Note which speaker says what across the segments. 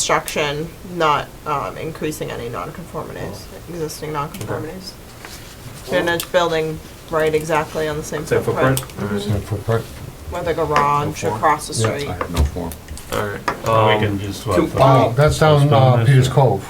Speaker 1: reconstruction, not um, increasing any nonconformities,
Speaker 2: Oh.
Speaker 1: existing nonconformities. Finished building right exactly on the same
Speaker 3: Same
Speaker 1: footprint, Mm-hmm.
Speaker 3: footprint?
Speaker 1: with a garage
Speaker 3: Footprint.
Speaker 1: across the
Speaker 4: Yeah.
Speaker 1: street.
Speaker 4: no form.
Speaker 3: Alright.
Speaker 5: We
Speaker 3: Um,
Speaker 5: can just, what, put-
Speaker 2: Oh, that's down, uh,
Speaker 5: Postpone this.
Speaker 2: Peters Cove.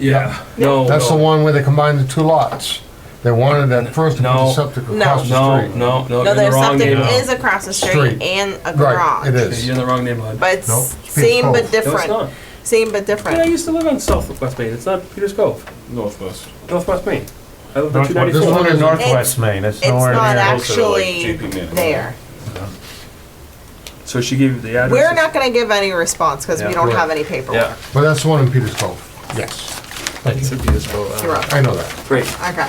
Speaker 3: yeah, no.
Speaker 2: That's
Speaker 1: Oh,
Speaker 2: the
Speaker 3: no.
Speaker 2: one where they combined the two lots. They wanted at first to put
Speaker 3: No.
Speaker 2: the septic across the
Speaker 3: No,
Speaker 2: street.
Speaker 3: no, no,
Speaker 1: No,
Speaker 3: you're in the
Speaker 1: there's
Speaker 3: wrong
Speaker 1: something is
Speaker 3: neighborhood.
Speaker 1: across the street
Speaker 2: Street.
Speaker 1: and a
Speaker 2: Right, it
Speaker 1: garage.
Speaker 2: is.
Speaker 3: You're in the wrong neighborhood.
Speaker 1: But it's
Speaker 2: Nope, it's Peters
Speaker 1: same but
Speaker 2: Cove.
Speaker 3: No, it's
Speaker 1: different,
Speaker 3: not.
Speaker 1: same but
Speaker 3: Yeah, I
Speaker 1: different.
Speaker 3: used to live on Southwest Main, it's not Peters Cove,
Speaker 4: Northwest.
Speaker 3: Northwest Main. I lived on
Speaker 5: North-
Speaker 3: two
Speaker 5: this
Speaker 3: ninety-four.
Speaker 5: one
Speaker 2: It's-
Speaker 5: is Northwest Main, it's
Speaker 1: It's
Speaker 5: nowhere
Speaker 1: not
Speaker 5: near.
Speaker 4: Closer to, like,
Speaker 1: actually
Speaker 4: JP Manor.
Speaker 1: there.
Speaker 3: So she gave you the address?
Speaker 1: We're not gonna give any response, because we
Speaker 3: Yeah.
Speaker 1: don't have any paperwork.
Speaker 3: Yeah.
Speaker 2: But that's the one in Peters Cove, yes.
Speaker 3: It's a Peters Cove.
Speaker 1: You're
Speaker 3: uh,
Speaker 1: up.
Speaker 2: I know that.
Speaker 3: Great.
Speaker 1: Okay,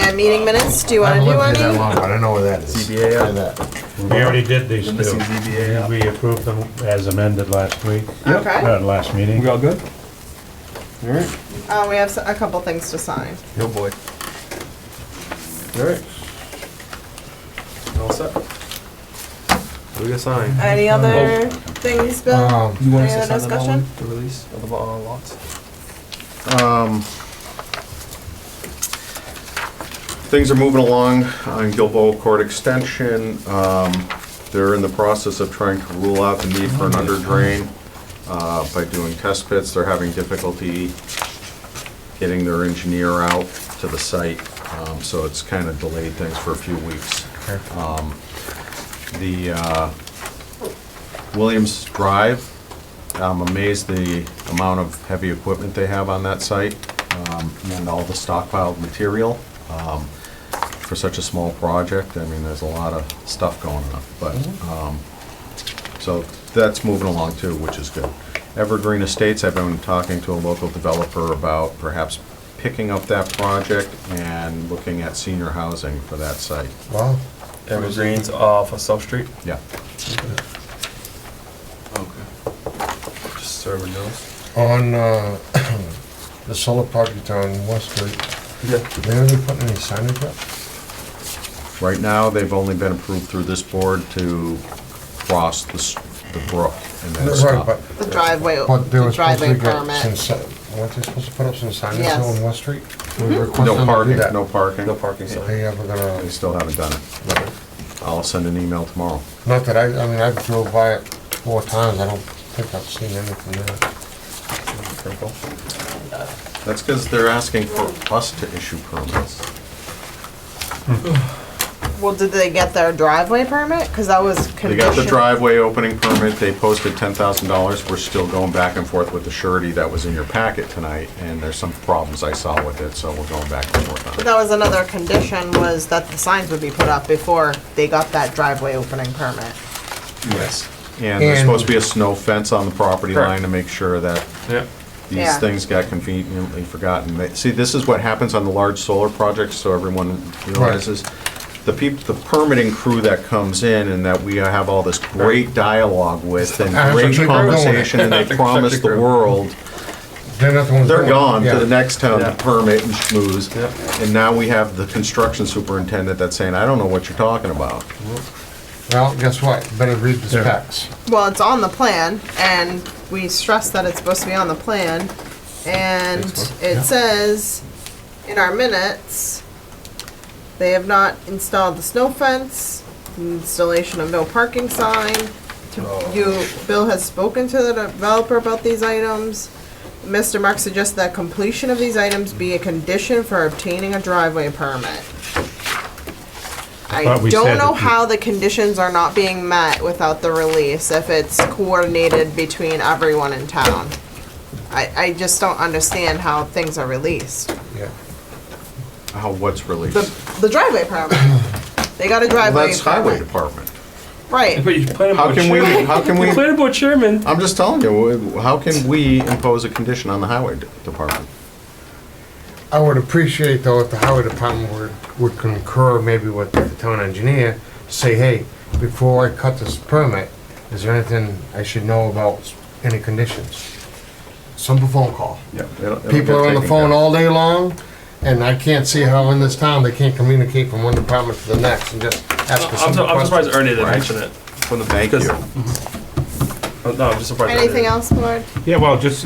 Speaker 1: and meeting minutes, do you wanna
Speaker 2: I haven't
Speaker 1: do
Speaker 2: lived here that
Speaker 1: any?
Speaker 2: long, but I know where that is.
Speaker 3: ZBA,
Speaker 2: I know
Speaker 3: uh,
Speaker 2: that.
Speaker 5: We already did these
Speaker 3: This
Speaker 5: two.
Speaker 3: is ZBA.
Speaker 5: We approved them as amended last week,
Speaker 1: Okay,
Speaker 5: uh, last meeting.
Speaker 3: We all good? Alright.
Speaker 1: uh, we have s- a couple things to sign.
Speaker 3: Yo, boy. Alright. All set. We got signed.
Speaker 1: Any other things, Bill?
Speaker 2: Um,
Speaker 3: You want us
Speaker 1: Uh, Any
Speaker 3: to
Speaker 1: other
Speaker 3: sign that one, the release of the uh, lots?
Speaker 4: Things are moving along on Gilboa Court Extension. Um, They're in the process of trying to rule out the need for an under drain uh, by doing test pits. They're having difficulty getting their engineer out to the site, um, so it's kind of delayed things for a few weeks. Um, The uh, Williams Drive, I'm amazed the amount of heavy equipment they have on that site um, and all the stockpiled material. Um, for such a small project, I mean, there's a lot of stuff going on, but,
Speaker 2: Mm-hmm.
Speaker 4: um, so that's moving along too, which is good. Evergreen Estates, I've been talking to a local developer about perhaps picking up that project and looking at senior housing for that site.
Speaker 2: Well,
Speaker 3: Evergreens off of South Street.
Speaker 4: Yeah.
Speaker 3: Okay. Just so everyone knows.
Speaker 2: on, uh, the solar project on West Street,
Speaker 3: Yeah.
Speaker 2: they haven't put any signage up?
Speaker 4: Right now, they've only been approved through this board to cross the, s- the brook and then
Speaker 2: Right,
Speaker 4: stop.
Speaker 2: but,
Speaker 1: The driveway,
Speaker 2: but they
Speaker 1: the
Speaker 2: were supposed
Speaker 1: driveway
Speaker 2: to get some,
Speaker 1: permit.
Speaker 2: si- weren't they supposed to put up some signage
Speaker 1: Yes. Mm-hmm.
Speaker 2: on West Street? We requested them to
Speaker 4: No
Speaker 2: do
Speaker 4: parking,
Speaker 2: that.
Speaker 4: no parking.
Speaker 3: No parking sign.
Speaker 2: They ever
Speaker 4: They
Speaker 2: gonna,
Speaker 4: still haven't done it. I'll send an email tomorrow.
Speaker 2: not that I, I mean, I've drove by it four times, I don't think I've seen anything there.
Speaker 3: Purple.
Speaker 4: That's because they're asking for us to issue permits.
Speaker 1: Well, did they get their driveway permit? Cause that was conditioned.
Speaker 4: They got the driveway opening permit, they posted ten thousand dollars, we're still going back and forth with the surety that was in your packet tonight, and there's some problems I saw with it, so we're going back and forth
Speaker 1: But
Speaker 4: on it.
Speaker 1: that was another condition, was that the signs would be put up before they got that driveway opening permit.
Speaker 4: Yes. And there's
Speaker 2: And-
Speaker 4: supposed to be a snow fence on the property
Speaker 3: Correct.
Speaker 4: line to make sure that
Speaker 3: Yeah.
Speaker 4: these
Speaker 1: Yeah.
Speaker 4: things got conveniently forgotten. They- See, this is what happens on the large solar projects, so everyone realizes. The peop, the permitting crew that comes in and that we have all this great dialogue with and
Speaker 2: Construction
Speaker 4: great
Speaker 2: crew.
Speaker 4: conversation and they promise the
Speaker 3: crew.
Speaker 4: world,
Speaker 2: They're not the ones.
Speaker 4: they're
Speaker 2: doing it.
Speaker 4: gone to
Speaker 2: Yeah.
Speaker 4: the next town
Speaker 3: Yeah.
Speaker 4: to permit and schmooze.
Speaker 3: Yep.
Speaker 4: And now we have the construction superintendent that's saying, I don't know what you're talking about.
Speaker 2: Well, guess what? Better read the specs.
Speaker 1: Well, it's on the plan, and we stress that it's supposed to be on the plan, and it says in our minutes, they have not installed the snow fence, installation of no parking sign. To- You, Bill has spoken to the developer about these items. Mr. Mark suggests that completion of these items be a condition for obtaining a driveway permit. I
Speaker 5: But we
Speaker 1: don't
Speaker 5: said
Speaker 1: know
Speaker 5: that-
Speaker 1: how the conditions are not being met without the release, if it's coordinated between everyone in town. I, I just don't understand how things are released.
Speaker 2: Yeah.
Speaker 4: How, what's released?
Speaker 1: The, the driveway permit. They got a
Speaker 4: Well,
Speaker 1: driveway
Speaker 4: that's highway
Speaker 1: permit.
Speaker 4: department.
Speaker 1: Right,
Speaker 3: But you plan
Speaker 4: How
Speaker 3: about
Speaker 4: can we,
Speaker 3: chairman.
Speaker 4: how can we?
Speaker 3: The planning board chairman.
Speaker 4: I'm just telling you, how can we impose a condition on the highway de- department?
Speaker 2: I would appreciate though if the highway department would, would concur maybe with the town engineer, say, hey, before I cut this permit, is there anything I should know about any conditions? Simple phone call.
Speaker 4: Yeah, it'll- it'll
Speaker 2: People
Speaker 4: get
Speaker 2: are on the
Speaker 4: taken
Speaker 2: phone
Speaker 4: care of.
Speaker 2: all day long, and I can't see how in this town they can't communicate from one department to the next and just ask a
Speaker 3: I'm,
Speaker 2: simple
Speaker 3: su- I'm surprised
Speaker 2: question.
Speaker 3: Ernie didn't
Speaker 4: Right.
Speaker 3: mention it.
Speaker 4: Thank you.
Speaker 6: Uh, No, I'm just surprised. I didn't-
Speaker 3: Anything else, board?
Speaker 1: Yeah, well, just